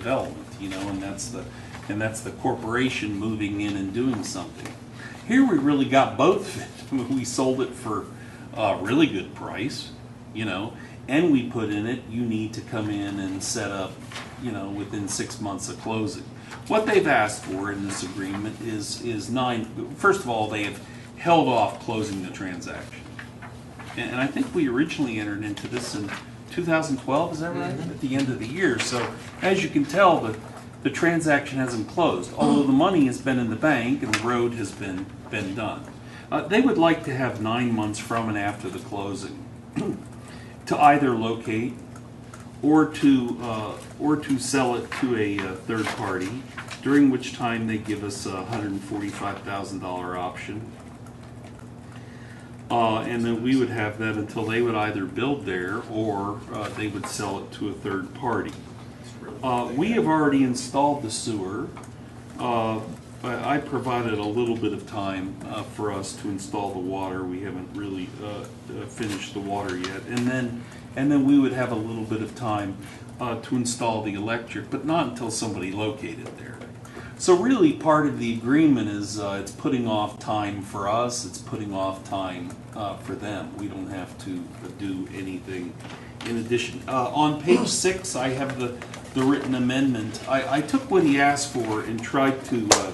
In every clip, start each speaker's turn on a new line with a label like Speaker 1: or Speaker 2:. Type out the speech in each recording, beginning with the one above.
Speaker 1: development, you know, and that's the, and that's the corporation moving in and doing something. Here we really got both. of it. we sold it for a really good price, you know, and we put in it, you need to come in and set up, you know, within six months of closing. What they've asked for in this agreement is, is nine, first of all, they have held off closing the transaction. And, and I think we originally entered into this in 2012, is that right? At the end of the year. So as you can tell, the, the transaction hasn't closed, although the money has been in the bank and the road has been, been done. Uh, they would like to have nine months from and after the closing to either locate or to, uh, or to sell it to a uh, third party, during which time they give us a $145,000 option. Uh, and then we would have that until they would either build there or, uh, they would sell it to a third party. Uh, we have already installed the sewer. Uh, but I provided a little bit of time, uh, for us to install the water. We haven't really, uh, uh, finished the water yet. And then, and then we would have a little bit of time, uh, to install the electric, but not until somebody located there. So really, part of the agreement is uh, it's putting off time for us, it's putting off time uh, for them. We don't have to do anything in addition. Uh, On page six, I have the, the written amendment. I, I took what he asked for and tried to, uh,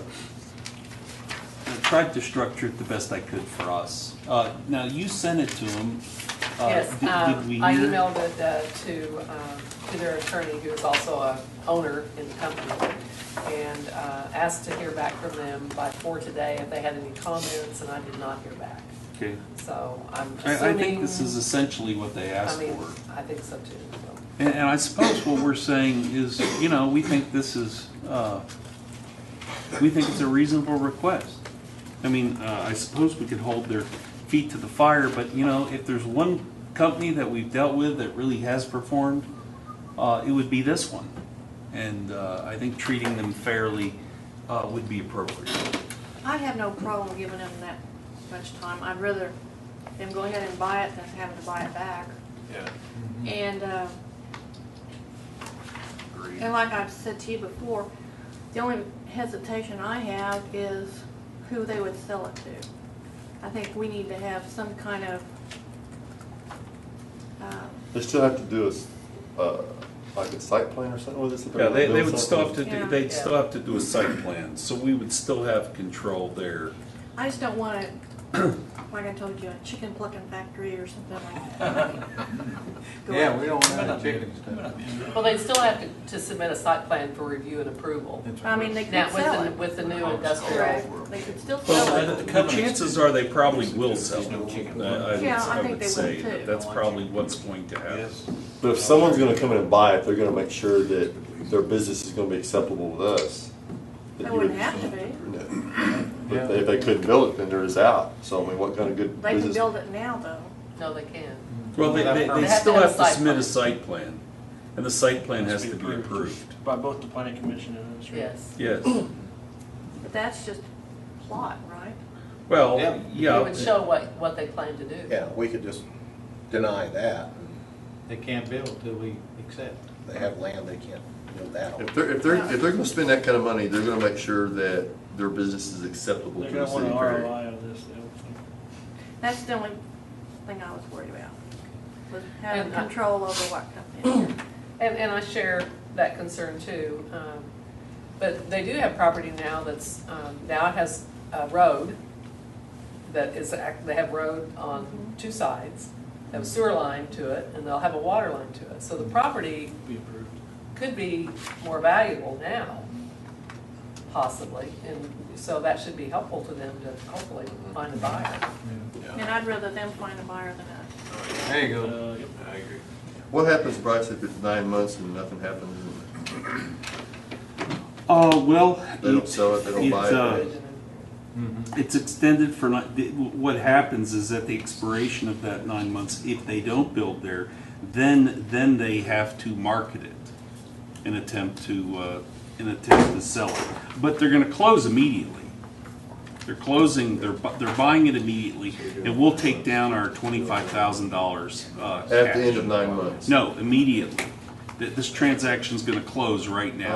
Speaker 1: I tried to structure it the best I could for us. Uh, Now, you sent it to him. Uh,
Speaker 2: Yes,
Speaker 1: did- did we
Speaker 2: um, I
Speaker 1: hear?
Speaker 2: emailed it uh, to, um, to their attorney, who is also a owner in the company, and uh, asked to hear back from them by four today if they had any comments, and I did not hear back.
Speaker 1: Okay.
Speaker 2: So I'm
Speaker 1: I, I
Speaker 2: assuming.
Speaker 1: think this is essentially what they
Speaker 2: I
Speaker 1: asked
Speaker 2: mean,
Speaker 1: for.
Speaker 2: I think so too, so.
Speaker 1: And, and I suppose what we're saying is, you know, we think this is, uh, we think it's a reasonable request. I mean, uh, I suppose we could hold their feet to the fire, but you know, if there's one company that we've dealt with that really has performed, uh, it would be this one. And, uh, I think treating them fairly, uh, would be appropriate.
Speaker 3: I have no problem giving them that much time. I'd rather them go ahead and buy it than having to buy it back.
Speaker 4: Yeah,
Speaker 3: And, uh,
Speaker 4: agreed.
Speaker 3: and like I've said to you before, the only hesitation I have is who they would sell it to. I think we need to have some kind of, um,
Speaker 5: They still have to do a, s- uh, like a site plan or something with this? if they're
Speaker 1: Yeah,
Speaker 5: gonna
Speaker 1: they, they
Speaker 5: build
Speaker 1: would still have
Speaker 5: something?
Speaker 1: to,
Speaker 3: Yeah.
Speaker 1: do- they'd still have to do a site plan, so we would still have control there.
Speaker 3: I just don't want to, like I told you, a chicken plucking factory or something like that. Go
Speaker 6: Yeah,
Speaker 3: out.
Speaker 6: we don't want to chicken stuff.
Speaker 2: Well, they still have to, to submit a site plan for review and approval.
Speaker 3: I mean, they could
Speaker 2: Now, with
Speaker 3: sell
Speaker 2: the,
Speaker 3: it.
Speaker 2: with the new industrial,
Speaker 3: Correct. They could still sell
Speaker 1: Well,
Speaker 3: it.
Speaker 1: the- the chances are they probably will sell it.
Speaker 6: There's no chicken.
Speaker 1: I- I would-
Speaker 3: Yeah, I
Speaker 1: I
Speaker 3: think
Speaker 1: would
Speaker 3: they
Speaker 1: say
Speaker 3: will, too.
Speaker 1: that that's probably what's going to happen.
Speaker 5: But if someone's gonna come in and buy it, they're gonna make sure that their business is gonna be acceptable with us.
Speaker 3: They
Speaker 5: That you would-
Speaker 3: wouldn't have to be.
Speaker 5: No. But they- if they couldn't build it, then they're just out. So I mean, what kind of good
Speaker 3: They can
Speaker 5: business?
Speaker 3: build it now, though.
Speaker 2: no, they can.
Speaker 1: Well, they, they, they
Speaker 2: have to
Speaker 1: still
Speaker 2: have a
Speaker 1: have to
Speaker 2: site
Speaker 1: submit a
Speaker 2: plan.
Speaker 1: site plan, and the site plan has to be approved.
Speaker 7: By both the planning commission and the street.
Speaker 2: Yes.
Speaker 1: Yes,
Speaker 3: But that's just plot, right?
Speaker 1: well,
Speaker 6: Yeah.
Speaker 2: It
Speaker 1: yeah,
Speaker 2: would show what, what they plan to do.
Speaker 8: Yeah, we could just deny that.
Speaker 6: They can't build till we accept.
Speaker 8: They have land, they can't build that on.
Speaker 5: If they're, if they're, if they're gonna spend that kind of money, they're gonna make sure that their business is acceptable
Speaker 7: They're
Speaker 5: to the
Speaker 7: gonna want
Speaker 5: city.
Speaker 7: an
Speaker 5: period.
Speaker 7: ROI on this. they don't-
Speaker 3: That's the only thing I was worried about, was having
Speaker 2: And I-
Speaker 3: control over what comes in.
Speaker 2: And, and I share that concern too. um, But they do have property now that's, um, now it has a road that is, act- they have road on two sides, they have a sewer line to it, and they'll have a water line to it. So the property
Speaker 7: Be approved.
Speaker 2: could be more valuable now, possibly. And so that should be helpful to them to hopefully find a buyer.
Speaker 3: And I'd rather them find a buyer than us.
Speaker 6: There you go.
Speaker 7: Uh, yep.
Speaker 4: I agree.
Speaker 5: What happens, Bryce, if it's nine months and nothing happens and
Speaker 1: uh, well.
Speaker 5: they don't sell it, they don't buy
Speaker 2: uh,
Speaker 5: it?
Speaker 1: It's extended for, ni- the- what happens is at the expiration of that nine months, if they don't build there, then, then they have to market it in attempt to, uh, in attempt to sell it. But they're gonna close immediately. They're closing, they're, bu- they're buying it immediately, and we'll take down our twenty-five thousand dollars, uh,
Speaker 5: At the end
Speaker 1: cash.
Speaker 5: of nine months?
Speaker 1: No, immediately. Th- This transaction's gonna close right now.